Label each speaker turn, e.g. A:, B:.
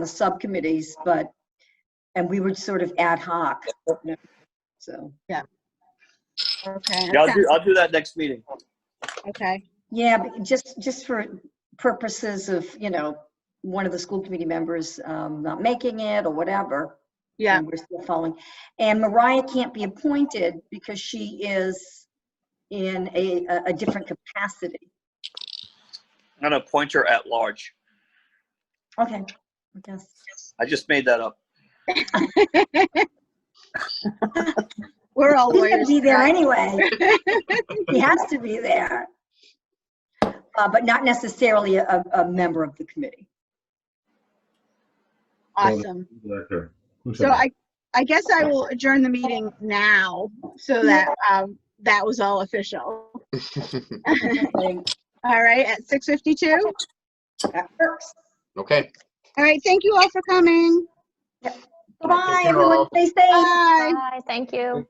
A: the subcommittees, but, and we were sort of ad hoc. So,
B: Okay.
C: Yeah, I'll do, I'll do that next meeting.
B: Okay.
A: yeah, but just, just for purposes of, you know, one of the school committee members um, not making it or whatever.
B: Yeah.
A: and We're still following. And Mariah can't be appointed because she is in a, a- a different capacity.
C: I'm gonna appoint her at large.
A: Okay, I guess.
C: I just made that up.
B: We're all
A: He's gonna
B: lawyers.
A: be there anyway. He has to be there. Uh, but not necessarily a, a member of the committee.
B: Awesome.
D: Director. Who's
B: So
D: that?
B: I, I guess I will adjourn the meeting now so that, um, that was all official. All right, at 6:52.
A: That works.
E: Okay.
B: All right, thank you all for coming.
A: Bye,
E: care,
A: everyone.
E: all.
A: Stay safe.
B: Bye.
F: Bye, thank you.